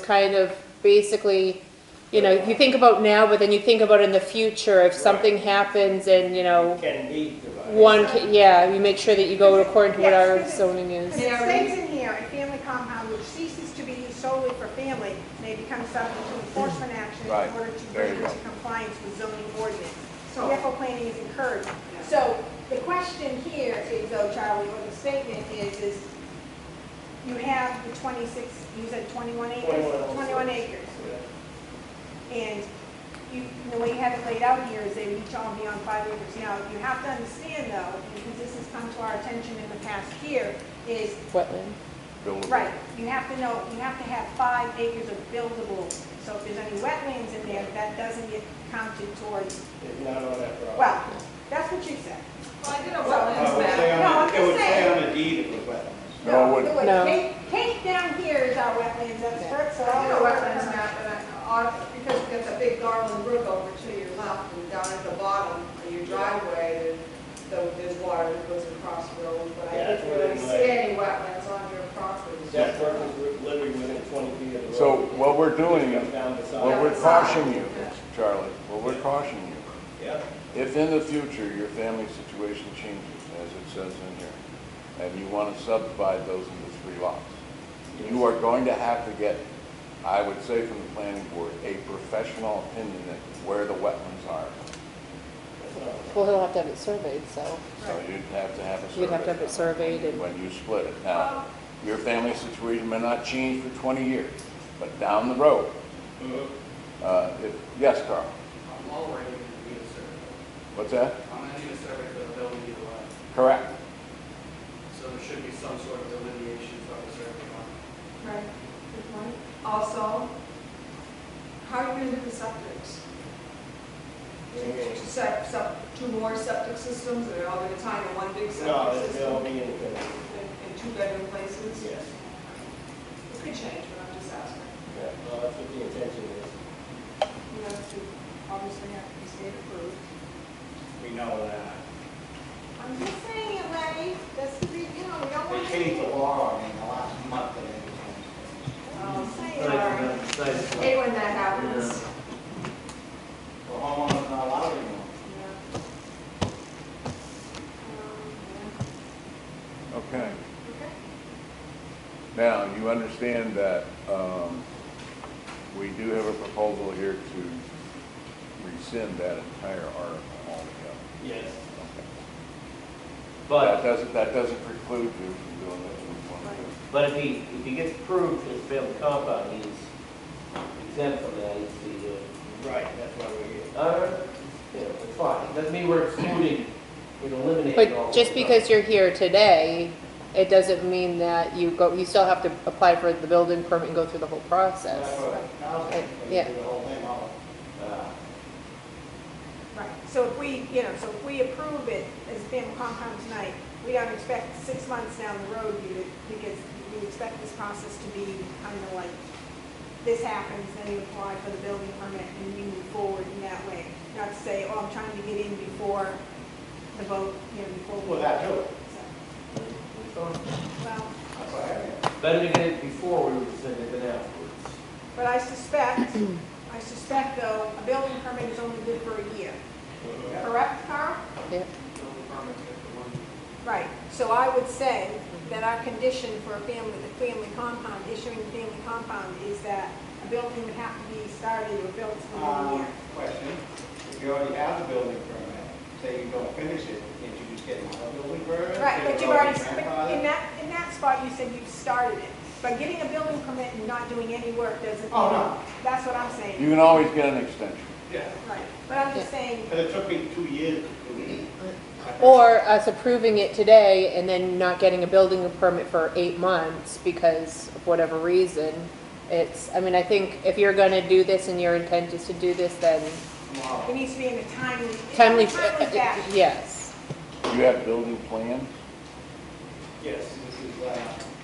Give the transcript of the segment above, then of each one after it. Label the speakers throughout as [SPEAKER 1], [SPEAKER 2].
[SPEAKER 1] kind of basically, you know, you think about now, but then you think about in the future, if something happens and, you know,
[SPEAKER 2] Can be divided.
[SPEAKER 1] one, ca- yeah, you make sure that you go according to what our
[SPEAKER 3] Yes.
[SPEAKER 1] zoning
[SPEAKER 3] Because
[SPEAKER 1] is.
[SPEAKER 3] it stays in here, a family compound which ceases to be used solely for family may become subject to enforcement action
[SPEAKER 4] Right.
[SPEAKER 3] in order to
[SPEAKER 4] There
[SPEAKER 3] bring
[SPEAKER 4] you
[SPEAKER 3] into
[SPEAKER 4] go.
[SPEAKER 3] compliance with zoning ordinance. So careful planning is encouraged. So the question here is though, Charlie, or the statement is, is you have the twenty-six, you said twenty-one acres?
[SPEAKER 2] 21.
[SPEAKER 3] Twenty-one acres. And you, the way you have it laid out here is they would each all be on five acres. Now, you have to understand though, because this has come to our attention in the past year, is,
[SPEAKER 1] Wetland.
[SPEAKER 4] buildable.
[SPEAKER 3] right, you have to know, you have to have five acres of buildable. So if there's any wetlands in there, that doesn't get counted towards,
[SPEAKER 2] It's not on that property.
[SPEAKER 3] well, that's what you said.
[SPEAKER 5] Well, I did
[SPEAKER 2] Uh,
[SPEAKER 5] a
[SPEAKER 2] it
[SPEAKER 5] wetlands
[SPEAKER 2] would say
[SPEAKER 5] map.
[SPEAKER 2] on
[SPEAKER 3] No,
[SPEAKER 2] the-
[SPEAKER 3] I'm just
[SPEAKER 2] It would say
[SPEAKER 3] saying.
[SPEAKER 2] on the deed it was wetlands.
[SPEAKER 4] No, it wouldn't.
[SPEAKER 1] No.
[SPEAKER 3] Kate, Kate down here is our wetlands expert, so.
[SPEAKER 5] I did a wetlands map, and I, on- because there's a big garland brook over to your left, and down at the bottom of your driveway, there's, there's water that goes across roads, but I
[SPEAKER 2] Yeah,
[SPEAKER 5] didn't really
[SPEAKER 2] that's what
[SPEAKER 5] see
[SPEAKER 2] it
[SPEAKER 5] any wetlands on your property.
[SPEAKER 2] That person was literally within 20 feet of the road.
[SPEAKER 4] So what we're doing,
[SPEAKER 2] Comes down the side.
[SPEAKER 4] what we're cautioning you, Charlie, what we're cautioning you,
[SPEAKER 2] Yeah.
[SPEAKER 4] if in the future your family situation changes, as it says in here, and you want to subdivide those into three lots, you are going to have to get, I would say from the planning board, a professional opinion that where the wetlands are.
[SPEAKER 2] That's not-
[SPEAKER 1] Well, he'll have to have it surveyed, so
[SPEAKER 4] So you'd have to have a survey.
[SPEAKER 1] you'd have to have it surveyed and,
[SPEAKER 4] when you split it. Now, your family situation may not change for 20 years, but down the road,
[SPEAKER 2] Mhm.
[SPEAKER 4] uh, if, yes, Carl,
[SPEAKER 6] I'm already gonna need a survey.
[SPEAKER 4] what's that?
[SPEAKER 6] I'm gonna need a survey for the building either way,
[SPEAKER 4] Correct.
[SPEAKER 6] so there should be some sort of delineation for the survey line.
[SPEAKER 5] Right, good point. Also, how are you gonna do the septics? Two sep- sep- two more septic systems, or are they tying in one
[SPEAKER 2] No,
[SPEAKER 5] big septic
[SPEAKER 2] it's
[SPEAKER 5] system?
[SPEAKER 2] built in the-
[SPEAKER 5] In in two bedroom places?
[SPEAKER 2] Yes.
[SPEAKER 5] It could change, but I'm just asking.
[SPEAKER 4] Yeah.
[SPEAKER 2] Well, that's what the intention is.
[SPEAKER 5] You know, to obviously have to be state approved.
[SPEAKER 2] We know that.
[SPEAKER 3] I'm just saying it, Larry, that's the, re- you know, we don't
[SPEAKER 7] They
[SPEAKER 3] want to.
[SPEAKER 7] changed the law, I mean, the last month that they
[SPEAKER 3] I'm just saying.
[SPEAKER 5] Sorry. Hate when that happens.
[SPEAKER 7] changed. The homeowner's not allowed anymore.
[SPEAKER 5] Yeah. Um,
[SPEAKER 4] Okay.
[SPEAKER 5] yeah. Okay.
[SPEAKER 4] Now, you understand that um, we do have a proposal here to rescind that entire article altogether.
[SPEAKER 2] Yes.
[SPEAKER 4] That
[SPEAKER 8] But,
[SPEAKER 4] doesn't, that doesn't preclude you from doing what you want to do.
[SPEAKER 8] but if he, if he gets approved for his family compound, he's exempt from that, he's the, uh,
[SPEAKER 2] Right, that's why we're here.
[SPEAKER 8] uh, you know, it's fine, doesn't mean we're excluding, we're eliminating all.
[SPEAKER 1] but just because you're here today, it doesn't mean that you go, you still have to apply for the building permit and go through the whole
[SPEAKER 7] That's
[SPEAKER 1] process.
[SPEAKER 7] what, now they they do the whole thing all. uh,
[SPEAKER 3] Right, so if we, you know, so if we approve it as a family compound tonight, we don't expect six months down the road, you, to- because we expect this process to be kind of like, this happens, then you apply for the building permit and you move forward in that way. Not to say, oh, I'm trying to get in before the vote, you know, before. we-
[SPEAKER 7] Well, that too.
[SPEAKER 3] So,
[SPEAKER 8] Better
[SPEAKER 3] Well,
[SPEAKER 7] That's what I heard.
[SPEAKER 8] to get it before we rescind it than afterwards.
[SPEAKER 3] but I suspect, I suspect though, a building permit is only good for a year, correct, Carl?
[SPEAKER 1] Yeah.
[SPEAKER 6] Building permits get the one.
[SPEAKER 3] Right, so I would say that our condition for a family, the family compound, issuing the family compound is that a building would have to be started or built within a
[SPEAKER 7] Um,
[SPEAKER 3] year.
[SPEAKER 7] Question, if you already have the building permit, say you don't finish it, can't you just get another building permit?
[SPEAKER 3] Right,
[SPEAKER 7] Say you're
[SPEAKER 3] but you've already, but
[SPEAKER 7] grandfathered?
[SPEAKER 3] in that, in that spot, you said you've started it. But getting a building permit and not doing any work doesn't.
[SPEAKER 7] Oh, no.
[SPEAKER 3] That's what I'm saying,
[SPEAKER 4] You can always get an extension.
[SPEAKER 2] Yeah.
[SPEAKER 3] right. But I'm just saying,
[SPEAKER 2] Because it took me two years to do it.
[SPEAKER 1] Or us approving it today and then not getting a building permit for eight months because of whatever reason. It's, I mean, I think if you're gonna do this and your intent is to do this, then
[SPEAKER 3] it needs to be in a timely.
[SPEAKER 1] timely, uh,
[SPEAKER 3] Timely fashion.
[SPEAKER 1] yes.
[SPEAKER 4] You have building plans?
[SPEAKER 2] Yes,
[SPEAKER 7] This is, uh,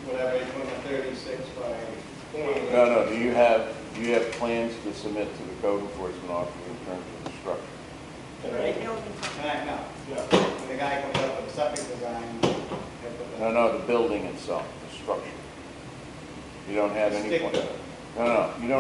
[SPEAKER 7] whatever, it's one of thirty-six by
[SPEAKER 4] No, no, do you have, do you have plans to submit to the code enforcement officer in terms of the structure?
[SPEAKER 3] Right,
[SPEAKER 2] tonight.
[SPEAKER 3] building permit.
[SPEAKER 7] tonight, no.
[SPEAKER 2] No.
[SPEAKER 7] When the guy comes up with septic design, they put the.
[SPEAKER 4] No, no, the building itself, the structure. You don't have any
[SPEAKER 7] Stick
[SPEAKER 4] plan.
[SPEAKER 7] to it.
[SPEAKER 4] No, no, you don't